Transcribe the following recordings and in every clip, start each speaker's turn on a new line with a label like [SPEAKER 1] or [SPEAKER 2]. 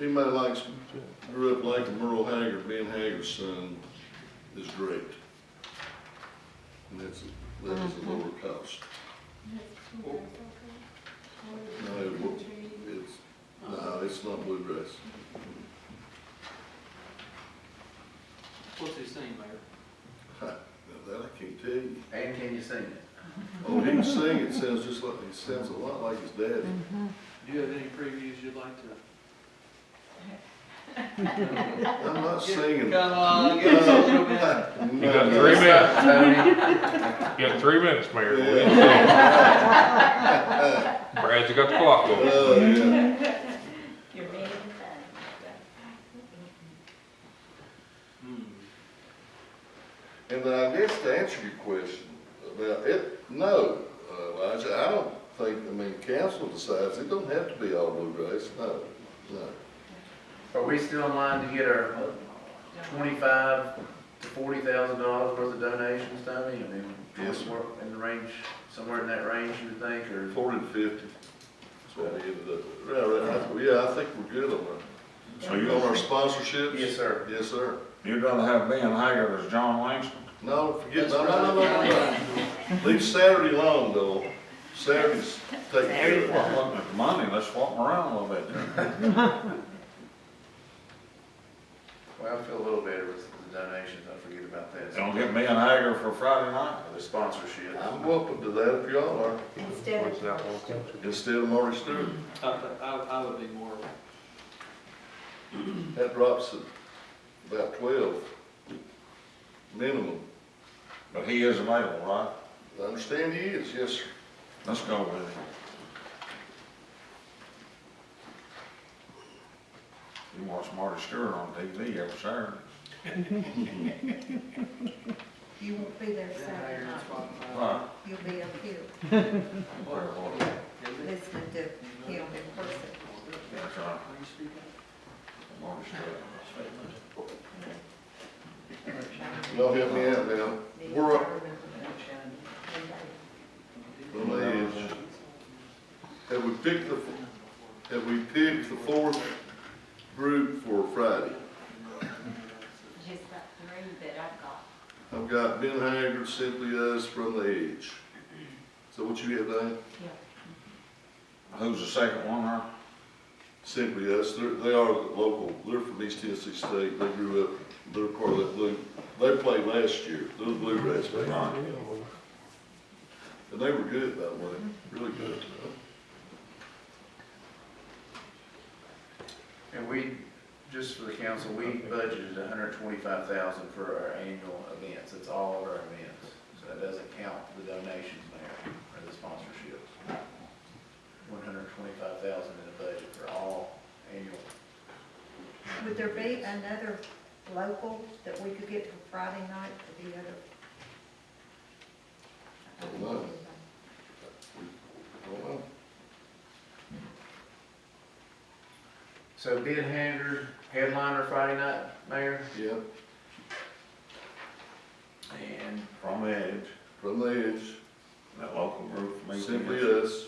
[SPEAKER 1] Anybody likes, grew up liking Merle Haggard, being Haggard's son is great. And that's, that is a lower cost. No, it wa- it's, no, it's not bluegrass.
[SPEAKER 2] What's his name, Mayor?
[SPEAKER 1] Now, that I can't tell you.
[SPEAKER 3] And can you sing it?
[SPEAKER 1] Oh, he can sing, it sounds just like, it sounds a lot like his dad.
[SPEAKER 2] Do you have any previews you'd like to?
[SPEAKER 1] I'm not singing.
[SPEAKER 2] Come on, give us a little bit.
[SPEAKER 4] You
[SPEAKER 1] got
[SPEAKER 4] got three minutes,
[SPEAKER 3] Tony,
[SPEAKER 4] you got three minutes, Mayor.
[SPEAKER 1] Yeah.
[SPEAKER 4] Brad, you got the clock going.
[SPEAKER 1] Oh, yeah.
[SPEAKER 5] You're being kind.
[SPEAKER 2] Hmm.
[SPEAKER 1] And then I guess to answer your question about it, no, uh, Elijah, I don't think, I mean, council decides, it don't have to be all bluegrass, no, no.
[SPEAKER 3] are we still in line to get our twenty-five to forty thousand dollars worth of donations, Tony? I mean,
[SPEAKER 1] Yes, sir.
[SPEAKER 3] somewhere in the range, somewhere in that range, you would think, or?
[SPEAKER 1] Forty to fifty, that's what we ended up, yeah, right, I- yeah, I think we're good on
[SPEAKER 6] So
[SPEAKER 1] our, on our
[SPEAKER 6] you're,
[SPEAKER 1] sponsorships.
[SPEAKER 3] Yes, sir.
[SPEAKER 1] Yes, sir.
[SPEAKER 6] you're gonna have Ben Haggard as John Langston?
[SPEAKER 1] No, forget, no, no, no, no, no. Leave Saturday alone, though, Saturday's taken care of.
[SPEAKER 6] Well, looking at the money, let's swap 'em around a little bit there.
[SPEAKER 3] Well, I feel a little better with the donations, I forget about that.
[SPEAKER 6] Don't get Ben Haggard for Friday night.
[SPEAKER 3] The sponsorship.
[SPEAKER 1] I'm welcome to that if y'all are,
[SPEAKER 5] Instead
[SPEAKER 4] What's that one?
[SPEAKER 5] of.
[SPEAKER 1] instead of Marty Stewart,
[SPEAKER 2] I, I, I would be more,
[SPEAKER 1] that drops at about twelve, minimum.
[SPEAKER 6] But he is available, right?
[SPEAKER 1] I understand he is, yes, sir.
[SPEAKER 6] Let's go with it. You watch Marty Stewart on TV every Saturday.
[SPEAKER 5] You won't be there
[SPEAKER 2] Ben
[SPEAKER 5] Saturday
[SPEAKER 2] Haggard's
[SPEAKER 5] night.
[SPEAKER 2] walking by.
[SPEAKER 6] Right.
[SPEAKER 5] You'll be up here
[SPEAKER 2] What? Is it?
[SPEAKER 5] listening to him in person.
[SPEAKER 6] That's right.
[SPEAKER 2] Are you speaking?
[SPEAKER 6] Marty Stewart.
[SPEAKER 1] Y'all help me out now. We're up. Well, that is- Have we picked the, have we picked the fourth group for Friday?
[SPEAKER 5] Just about three that I've got.
[SPEAKER 1] I've got Ben Haggard, Simply Us, From the Edge. So what you have, Diane?
[SPEAKER 6] Who's the second one, huh?
[SPEAKER 1] Simply Us, they're, they are local, they're from East Tennessee State, they grew up, they're part of that blue, they played last year, they're the Bluegrass Band. And they were good, by the way, really good.
[SPEAKER 3] And we, just for the council, we budgeted hundred twenty-five thousand for our annual events, that's all of our events. So that doesn't count the donations there, or the sponsorships. One hundred twenty-five thousand in the budget for all annual.
[SPEAKER 5] Would there be another local that we could get for Friday night for the other?
[SPEAKER 1] Don't know. Don't know.
[SPEAKER 3] So Ben Haggard, headliner Friday night, Mayor,
[SPEAKER 1] Yeah,
[SPEAKER 3] and
[SPEAKER 6] From the Edge,
[SPEAKER 1] From the Edge,
[SPEAKER 6] that local group from East
[SPEAKER 1] Simply
[SPEAKER 6] Tennessee.
[SPEAKER 1] Us,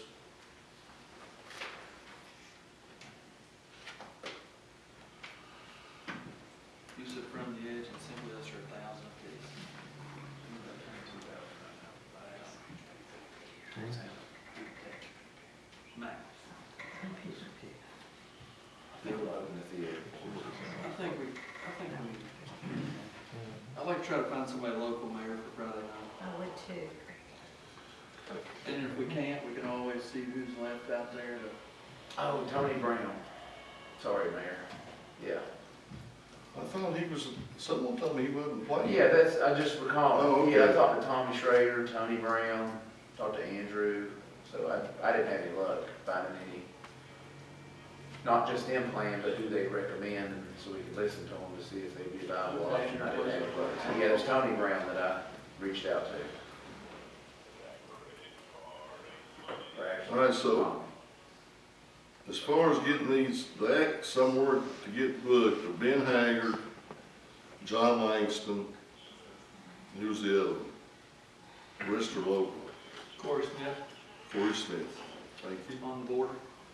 [SPEAKER 2] You said from the edge and simply us are a thousand piece. Max.
[SPEAKER 3] they'll open the theater.
[SPEAKER 2] I think we, I think we, I'd like to try to find somebody local mayor for Friday night.
[SPEAKER 5] I would too.
[SPEAKER 2] And if we can't, we can always see who's left out there to
[SPEAKER 3] Oh, Tony Brown, sorry, Mayor, yeah.
[SPEAKER 1] I thought he was, someone told me he wasn't playing.
[SPEAKER 3] Yeah, that's, I just
[SPEAKER 1] Oh,
[SPEAKER 3] recall,
[SPEAKER 1] okay.
[SPEAKER 3] yeah, I talked to Tommy Schrader, Tony Brown, talked to Andrew, so I, I didn't have any luck finding any, not just them playing, but who they recommend, and so we could listen to them to see if they'd be viable option. I didn't have any luck. So, Yeah, it was Tony Brown that I reached out to. Or actually,
[SPEAKER 1] All right, so-
[SPEAKER 3] Tommy.
[SPEAKER 1] As far as getting these, back somewhere to get booked, are Ben Haggard, John Langston, who's the other one? Rest are local,
[SPEAKER 2] Corey Smith
[SPEAKER 1] Corey Smith, thank you.
[SPEAKER 2] on the board.